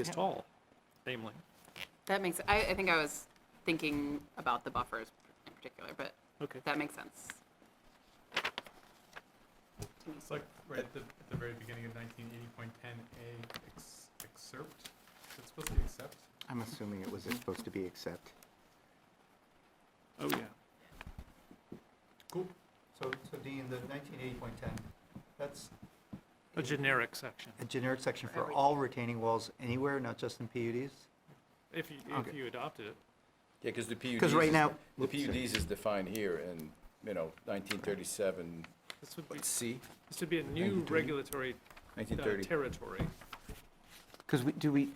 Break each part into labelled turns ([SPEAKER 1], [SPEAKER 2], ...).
[SPEAKER 1] is tall, same length.
[SPEAKER 2] That makes, I, I think I was thinking about the buffers in particular, but
[SPEAKER 1] Okay.
[SPEAKER 2] that makes sense.
[SPEAKER 3] It's like right at the, at the very beginning of nineteen eighty point ten A excerpt, it's supposed to be accept.
[SPEAKER 4] I'm assuming it was supposed to be accept.
[SPEAKER 1] Oh, yeah.
[SPEAKER 3] Cool.
[SPEAKER 4] So, so Dean, the nineteen eighty point ten, that's
[SPEAKER 1] A generic section,
[SPEAKER 4] a generic section for all retaining walls anywhere, not just in PUDs?
[SPEAKER 1] if you, if
[SPEAKER 4] Okay.
[SPEAKER 1] you adopted it.
[SPEAKER 5] Yeah, because the PUDs.
[SPEAKER 4] 'Cause right
[SPEAKER 5] is-
[SPEAKER 4] now-
[SPEAKER 5] The
[SPEAKER 4] oops, sorry.
[SPEAKER 5] PUDs is defined here in, you know, 1937,
[SPEAKER 1] This would be,
[SPEAKER 5] what, C?
[SPEAKER 1] this would be a new regulatory uh,
[SPEAKER 5] 1930.
[SPEAKER 1] territory.
[SPEAKER 4] Because we, do we,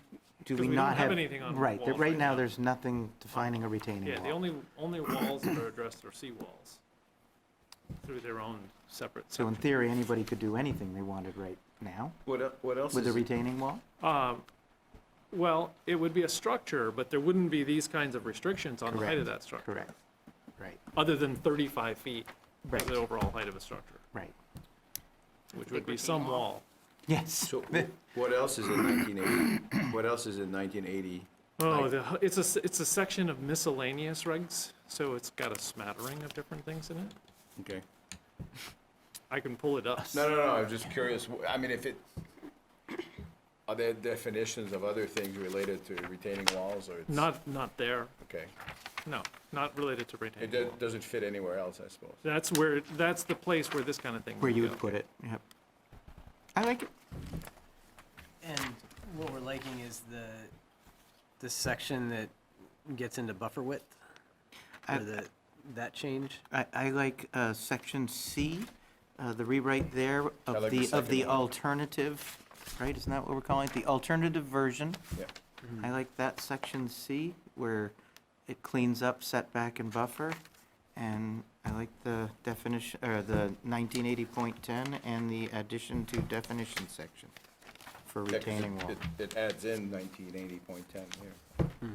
[SPEAKER 4] do
[SPEAKER 1] 'Cause we
[SPEAKER 4] we
[SPEAKER 1] don't
[SPEAKER 4] not
[SPEAKER 1] have
[SPEAKER 4] have?
[SPEAKER 1] anything on
[SPEAKER 4] Right, that
[SPEAKER 1] walls right
[SPEAKER 4] right
[SPEAKER 1] now.
[SPEAKER 4] now, there's nothing defining a retaining wall.
[SPEAKER 1] Yeah, the only, only walls that are addressed are seawalls through their own separate
[SPEAKER 4] So in
[SPEAKER 1] section.
[SPEAKER 4] theory, anybody could do anything they wanted right now
[SPEAKER 5] What, el- what else
[SPEAKER 4] with a
[SPEAKER 5] is,
[SPEAKER 4] retaining wall?
[SPEAKER 1] Um, Well, it would be a structure, but there wouldn't be these kinds of restrictions on the height of
[SPEAKER 4] Correct,
[SPEAKER 1] that structure.
[SPEAKER 4] Correct, right,
[SPEAKER 1] Other than 35 feet
[SPEAKER 4] Right.
[SPEAKER 1] of the overall height of a structure,
[SPEAKER 4] right.
[SPEAKER 1] which would be some wall.
[SPEAKER 4] Yes,
[SPEAKER 5] so wh- what else is in 1980? What else is in 1980?
[SPEAKER 1] Oh,
[SPEAKER 5] Like-
[SPEAKER 1] the, it's a, s- it's a section of miscellaneous regs, so it's got a smattering of different things in it.
[SPEAKER 5] Okay.
[SPEAKER 1] I can pull it up.
[SPEAKER 5] No, no, no, I'm just curious, wh- I mean, if it, are there definitions of other things related to retaining walls, or it's?
[SPEAKER 1] Not, not there,
[SPEAKER 5] Okay.
[SPEAKER 1] no, not related to
[SPEAKER 5] It
[SPEAKER 1] retaining
[SPEAKER 5] do-
[SPEAKER 1] wall.
[SPEAKER 5] doesn't fit anywhere else, I suppose.
[SPEAKER 1] That's where, that's the place where this kind of thing
[SPEAKER 4] where
[SPEAKER 1] would
[SPEAKER 4] you would
[SPEAKER 1] go.
[SPEAKER 4] put it, yep. I like it.
[SPEAKER 6] And what we're liking is the, the section that gets into buffer width,
[SPEAKER 4] I-
[SPEAKER 6] or the, that change?
[SPEAKER 4] I, I like uh, section C, uh, the rewrite there of
[SPEAKER 5] like the
[SPEAKER 4] the, of the
[SPEAKER 5] second one.
[SPEAKER 4] alternative, right, isn't that what we're calling it, the alternative version?
[SPEAKER 5] Yeah.
[SPEAKER 1] Mm-hmm.
[SPEAKER 4] I like that section C, where it cleans up setback and buffer, and I like the definition, or the nineteen eighty point ten and the addition to definition section for
[SPEAKER 5] Yeah, 'cause it-
[SPEAKER 4] retaining wall.
[SPEAKER 5] it- It adds in 1980.10 here.
[SPEAKER 4] Mm-hmm.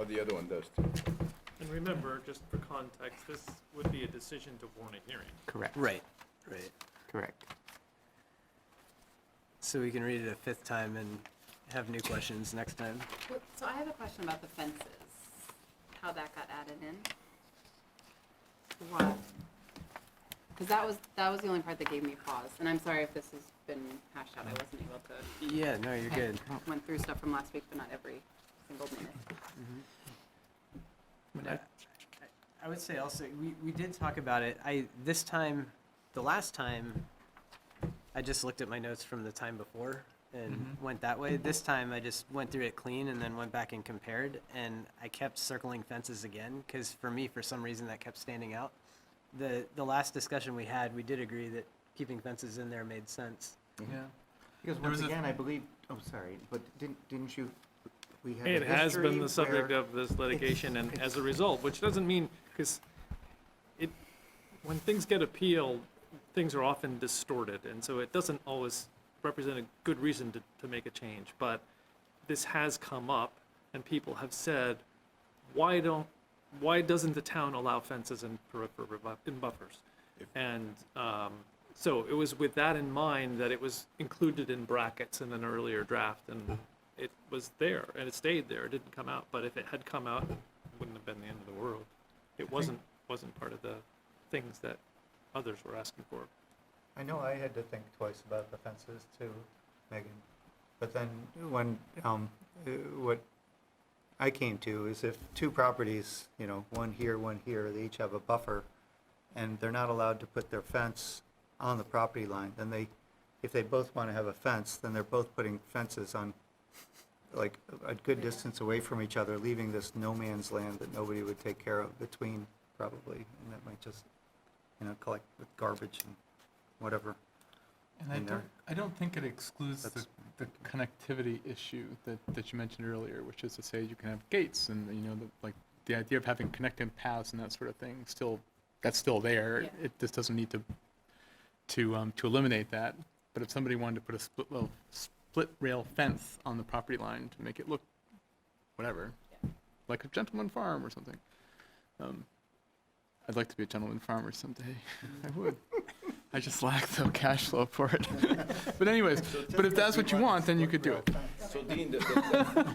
[SPEAKER 5] Or the other one does too.
[SPEAKER 1] And remember, just for context, this would be a decision to warn a hearing.
[SPEAKER 4] Correct,
[SPEAKER 6] Right, right.
[SPEAKER 4] correct.
[SPEAKER 6] So we can read it a fifth time and have new questions next time?
[SPEAKER 2] So I have a question about the fences, how that got added in. Why? Because that was, that was the only part that gave me pause, and I'm sorry if this has been hashed out, I wasn't able to.
[SPEAKER 6] Yeah, no, you're good.
[SPEAKER 2] I Went through stuff from last week, but not every single minute.
[SPEAKER 6] I I would say also, we, we did talk about it. I, this time, the last time, I just looked at my notes from the time before and went that way. This time, I just went through it clean and then went back and compared. And I kept circling fences again, because for me, for some reason, that kept standing out. The, the last discussion we had, we did agree that keeping fences in there made sense.
[SPEAKER 4] Because
[SPEAKER 3] There
[SPEAKER 4] once
[SPEAKER 3] was a-
[SPEAKER 4] again, I believe, oh, sorry, but didn't, didn't you, we had a
[SPEAKER 1] It has
[SPEAKER 4] history
[SPEAKER 1] been the subject
[SPEAKER 4] where-
[SPEAKER 1] of this litigation and as a result, which doesn't mean, because it, when things get appealed, things are often distorted, and so it doesn't always represent a good reason to, to make a change. But this has come up, and people have said, why don't, why doesn't the town allow fences in peripheral, rebu- in buffers? And, um, so it was with that in mind that it was included in brackets in an earlier draft, and it was there, and it stayed there, it didn't come out, but if it had come out, it wouldn't have been the end of the world. It wasn't, wasn't part of the things that others were asking for.
[SPEAKER 7] I know I had to think twice about the fences too, Megan. But then when, um, uh, what I came to is if two properties, you know, one here, one here, they each have a buffer, and they're not allowed to put their fence on the property line, then they, if they both want to have a fence, then they're both putting fences on, like, a good distance away from each other, leaving this no man's land that nobody would take care of between, probably, and that might just, you know, collect garbage and whatever.
[SPEAKER 3] And I
[SPEAKER 7] In
[SPEAKER 3] don't,
[SPEAKER 7] there.
[SPEAKER 3] I don't think it excludes the,
[SPEAKER 7] That's-
[SPEAKER 3] the connectivity issue that, that you mentioned earlier, which is to say you can have gates and, you know, the- like, the idea of having connecting paths and that sort of thing, still, that's still there.
[SPEAKER 2] Yeah.
[SPEAKER 3] It just doesn't need to, to, um, to eliminate that. But if somebody wanted to put a split, well, split rail fence on the property line to make it look, whatever, like a gentleman farm or something. Um, I'd like to be a gentleman farmer someday. I would. I just lack the cash flow for it. But anyways, but if that's what you want, then you could do it.
[SPEAKER 5] So Dean, the- the- the-